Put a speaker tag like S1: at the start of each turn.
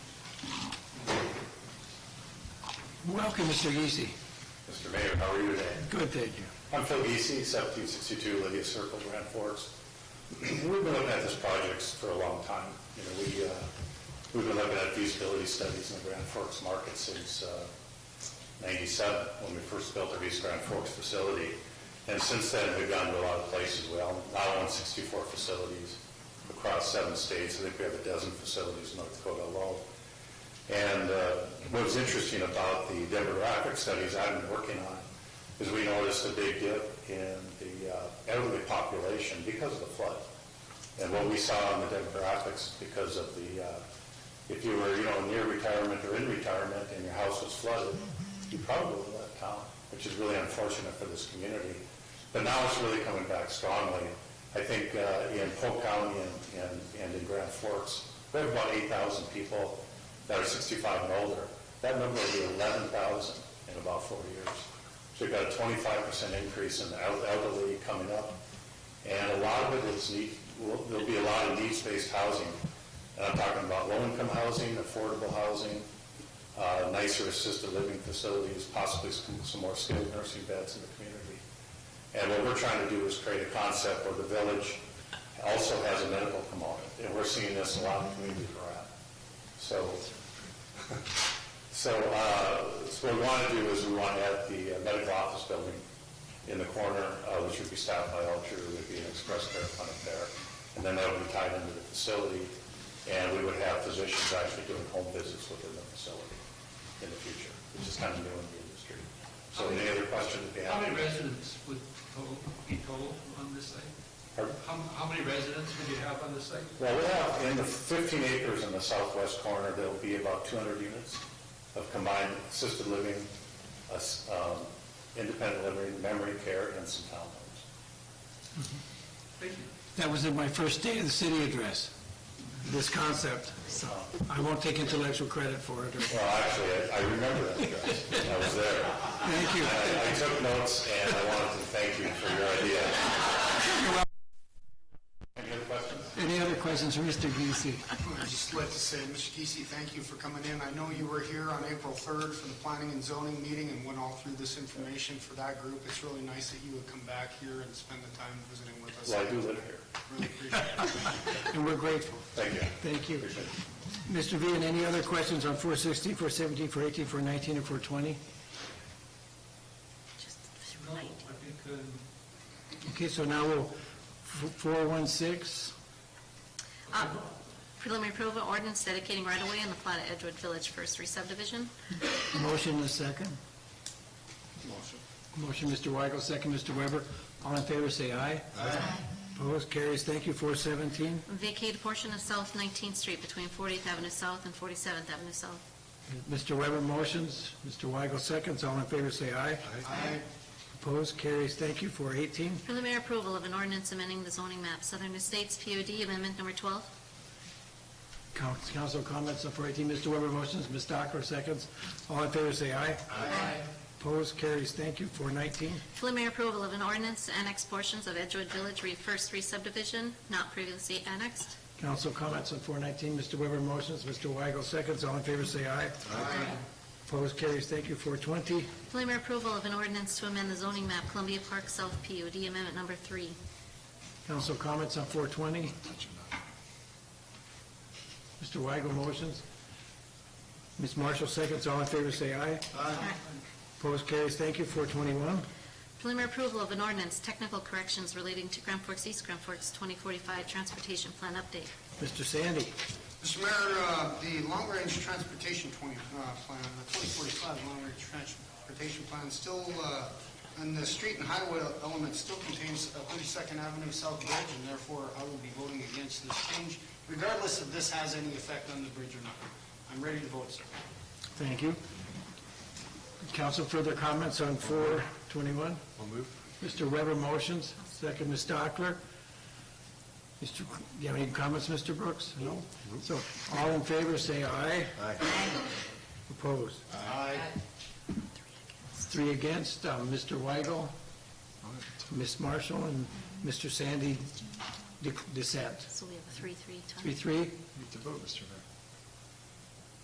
S1: Welcome, Mr. Geesey.
S2: Mr. Mayor, how are you today?
S1: Good, thank you.
S2: I'm Phil Easy, 1762 Lydia Circle, Grand Forks. We've been looking at this project for a long time. You know, we, uh, we've been looking at feasibility studies in the Grand Forks market since uh, 97, when we first built our East Grand Forks facility. And since then, we've gone to a lot of places. We all- now own 64 facilities across seven states. I think we have a dozen facilities in North Dakota alone. And uh, what was interesting about the demographic studies I've been working on is we noticed a big dip in the uh, elderly population because of the flood. And what we saw in the demographics because of the, uh, if you were, you know, near retirement or in retirement and your house was flooded, you probably would have left town, which is really unfortunate for this community. But now it's really coming back strongly. I think uh, in Polk County and- and and in Grand Forks, we have about 8,000 people that are 65 and older. That number will be 11,000 in about four years. So we've got a 25% increase in the el- elderly coming up. And a lot of it is need, will- there'll be a lot of needs-based housing. And I'm talking about low-income housing, affordable housing, uh, nicer assisted living facilities, possibly some some more skilled nursing beds in the community. And what we're trying to do is create a concept where the village also has a medical component, and we're seeing this in a lot of communities we're at. So, so, uh, so what we want to do is we want to have the uh, medical office building in the corner, uh, which would be staffed by Alter, there would be an express care clinic there, and then that would be tied into the facility, and we would have physicians actually doing home visits within the facility in the future, which is kind of new in the industry. So any other questions that you have?
S3: How many residents would total- be total on this site?
S2: Pardon?
S3: How how many residents would you have on this site?
S2: Well, we have, in the 15 acres in the southwest corner, there'll be about 200 units of combined assisted living, us- um, independent living, memory care, and some townhomes.
S3: Thank you.
S1: That was in my first day of the city address, this concept. So I won't take intellectual credit for it. or-
S2: Well, actually, I- I remember that address. I was there.
S1: Thank you.
S2: I I took notes, and I wanted to thank you for your idea. Any other questions?
S1: Any other questions for Mr. Geesey?
S4: I'd just like to say, Mr. Geesey, thank you for coming in. I know you were here on April 3rd for the planning and zoning meeting and went all through this information for that group. It's really nice that you would come back here and spend the time visiting with us.
S2: Well, I do live here.
S4: Really appreciate it.
S1: And we're grateful.
S2: Thank you.
S1: Thank you.
S2: Appreciate it.
S1: Mr. Vian, any other questions on 416, 417, 418, 419, or 420?
S5: Just
S3: No, I think, um,
S1: Okay, so now we'll, f- 416,
S5: Um, Preliminary approval ordinance dedicating right-of-way in the plat of Edgewood Village First Re-subdivision.
S1: motion and a second. Motion. Motion, Mr. Weigel, second, Mr. Weber. All in favor, say aye. Aye. Opposed, carries. Thank you, 417.
S5: Vacate a portion of South 19th Street between 40th Avenue South and 47th Avenue South.
S1: Mr. Weber motions, Mr. Weigel seconds, all in favor say aye.
S4: I
S1: Opposed, carries, thank you, for 18.
S5: Preliminary approval of an ordinance amending the zoning map, Southern Estates POD Amendment Number 12.
S1: Coun- Council comments on 418, Mr. Weber motions, Ms. Dockler seconds, all in favor say aye. Aye. Opposed, carries, thank you, for 19.
S5: Preliminary approval of an ordinance to annex portions of Edgewood Village Re- First Re-subdivision not previously annexed.
S1: Council comments on 419, Mr. Weber motions, Mr. Weigel seconds, all in favor say aye. Aye. Opposed, carries, thank you, for 20.
S5: Preliminary approval of an ordinance to amend the zoning map, Columbia Park South POD Amendment Number 3.
S1: Council comments on 420. Mr. Weigel motions, Ms. Marshall seconds, all in favor say aye. Opposed, carries, thank you, 421.
S5: Preliminary approval of an ordinance, technical corrections relating to Grand Forks East, Grand Forks 2045 Transportation Plan Update.
S1: Mr. Sandy,
S4: Mr. Mayor, uh, the long-range transportation 20, uh, plan, the 2045 long-range transportation plan, still, uh, and the street and highway element still contains a 32nd Avenue South Bridge, and therefore I will be voting against this change, regardless if this has any effect on the bridge or not. I'm ready to vote, sir.
S1: thank you. Council, further comments on 421? I'll move. Mr. Weber motions, second, Ms. Dockler. Mr., do you have any comments, Mr. Brooks? No. So, all in favor, say aye. Aye. Opposed?
S4: Aye.
S1: Three against, um, Mr. Weigel, Ms. Marshall, and Mr. Sandy de- dissent.
S5: So we have a 3-3 tie.
S1: Three, three?
S6: You have to vote, Mr. Mayor.